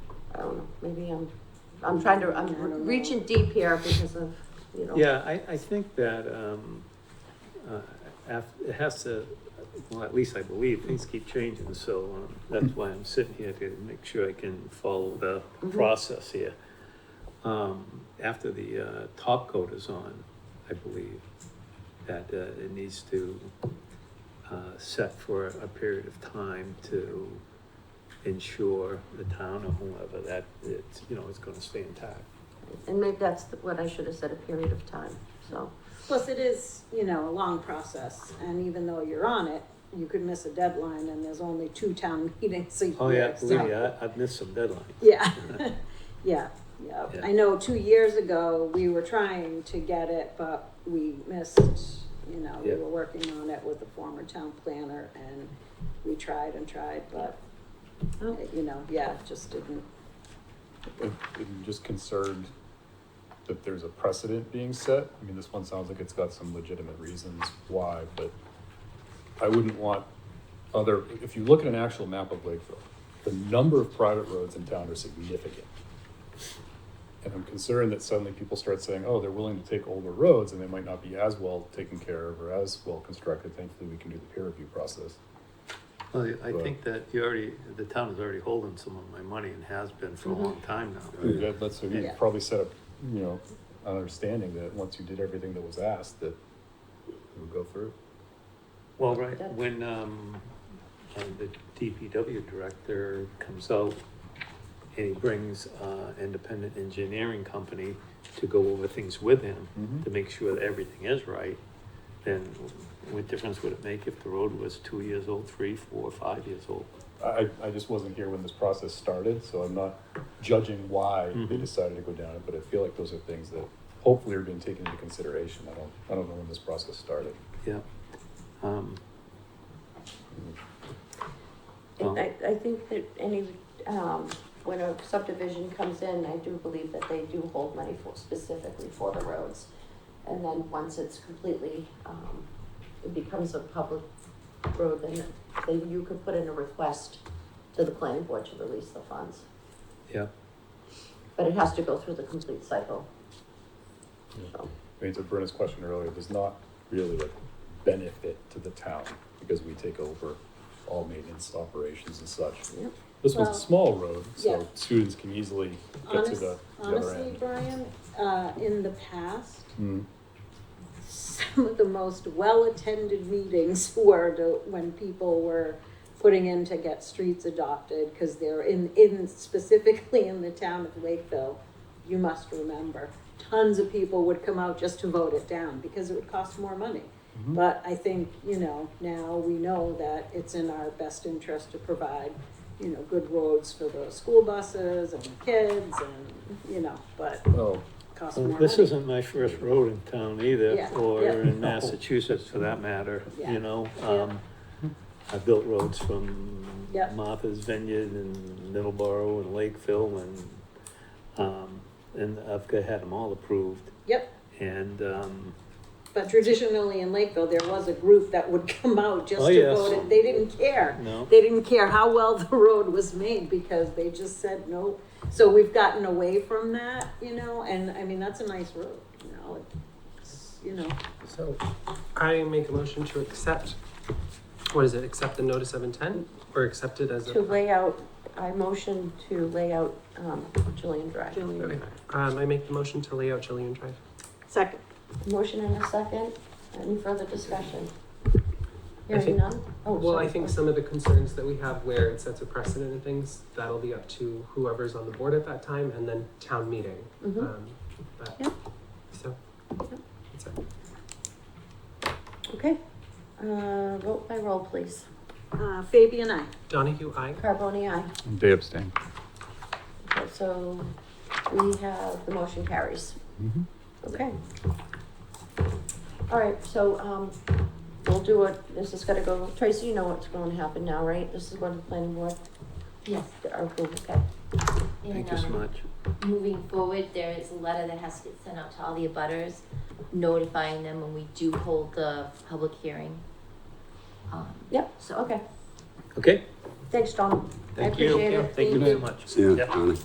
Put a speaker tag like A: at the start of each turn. A: Um, maybe I'm, I'm trying to,
B: I don't
A: I'm
B: know.
A: reaching deep here because of, you know.
C: Yeah, I, I think that, um, uh, af, it has to, well, at least I believe, things keep changing, so, um, that's why I'm sitting here to make sure I can follow the
A: Mhm.
C: process here. Um, after the, uh, top coat is on, I believe, that, uh, it needs to, uh, set for a period of time to ensure the town or whoever that it's, you know, it's gonna stay intact.
A: And maybe that's the- what I should have said, a period of time, so.
B: Plus, it is, you know, a long process, and even though you're on it, you could miss a deadline, and there's only two town meetings a year.
C: Oh, yeah, believe me,
B: so-
C: I, I've missed some deadlines.
B: Yeah, yeah, yeah.
C: Yeah.
B: I know two years ago, we were trying to get it, but we missed, you know, we
C: Yeah.
B: were working on it with the former town planner and we tried and tried, but,
A: Oh.
B: you know, yeah, it just didn't.
D: I'm I'm just concerned that there's a precedent being set. I mean, this one sounds like it's got some legitimate reasons why, but I wouldn't want other, if you look at an actual map of Lakeville, the number of private roads in town are significant. And I'm concerned that suddenly people start saying, oh, they're willing to take older roads and they might not be as well taken care of or as well constructed. Thankfully, we can do the peer review process.
C: Well, I- I
D: Right.
C: think that you already, the town is already holding some of my money and has been for a long time now.
D: That, that's, you
B: Yeah.
D: probably set up, you know, an understanding that once you did everything that was asked, that it would go through.
C: Well, right, when, um, uh, the DPW director comes out and he brings, uh, independent engineering company to go over things with him
D: Mhm.
C: to make sure that everything is right, then what difference would it make if the road was two years old, three, four, five years old?
D: I, I just wasn't here when this process started, so I'm not judging why they
C: Mhm.
D: decided to go down it, but I feel like those are things that hopefully are being taken into consideration. I don't, I don't know when this process started.
C: Yeah. Um,
A: And I, I think that any, um, when a subdivision comes in, I do believe that they do hold money for, specifically for the roads. And then once it's completely, um, it becomes a public road, then, then you could put in a request to the planning board to release the funds.
C: yeah.
A: But it has to go through the complete cycle. So,
D: I mean, to Brenna's question earlier, there's not really a benefit to the town because we take over all maintenance operations and such.
A: Yep.
D: This one's
B: Well,
D: a small road,
B: yeah.
D: so students can easily get to
B: Honest-
D: the the other
B: Honestly,
D: end.
B: Brian, uh, in the past,
D: Mm.
B: some of the most well-attended meetings were to- when people were putting in to get streets adopted, because they're in, in, specifically in the town of Lakeville, you must remember, tons of people would come out just to vote it down, because it would cost more money.
D: Mm-hmm.
B: But I think, you know, now we know that it's in our best interest to provide, you know, good roads for the school buses and the kids and, you know, but
D: Oh,
B: costs more
C: Well,
B: money.
C: This isn't my first road in town either,
B: Yeah,
C: or
B: yeah.
C: in Massachusetts for that matter,
B: Yeah,
C: you know?
B: yeah.
C: Um, I built roads from
B: Yeah.
C: Martha's Vineyard and Middleborough and Lakeville and, um, and I've got- had them all approved.
B: Yep.
C: And, um,
B: But traditionally in Lakeville, there was a group that would come out just
C: Oh,
B: to
C: yes.
B: vote it. They didn't care.
C: no,
B: They didn't care how well the road was made because they just said no. So we've gotten away from that, you know, and I mean, that's a nice road, you know. It's, you know,
E: So I make a motion to accept, what is it, accept the notice of intent or accept it as
A: to
E: a?
A: lay out, I motion to lay out, um, Julian Drive.
E: Okay. Um, I make the motion to lay out Chilean Drive.
B: second.
A: Motion and a second. Any further discussion?
E: I
A: Hearing
E: think-
A: none? Oh,
E: Well, I
A: sorry.
E: think some of the concerns that we have where it sets a precedent and things, that'll be up to whoever's on the board at that time and then town meeting.
A: Mhm.
E: Um, but-
A: Yeah.
E: So. that's it.
A: Okay. Uh, vote by roll, please.
B: Uh, Fabi and I.
E: Donahue, I.
A: Carboni, aye.
D: Day abstain.
A: Okay, So we have, the motion carries.
D: Mm-hmm.
A: Okay. All right, so, um, we'll do it. This is gonna go, Tracy, you know what's gonna happen now, right? This is going to the planning board?
F: Yes,
A: Our group, okay.
F: and,
C: thank you so
F: um,
C: much.
F: moving forward, there is a letter that has to get sent out to all the abutters, notifying them when we do hold the public hearing. Um,
A: Yep,
F: so,
A: so, okay.
C: Okay,
A: Thanks, Tom. I
C: thank you.
A: appreciate it.
C: Thank you
A: Thank
C: very
A: you.
C: much.
G: See ya,
C: Yep.
G: Connie.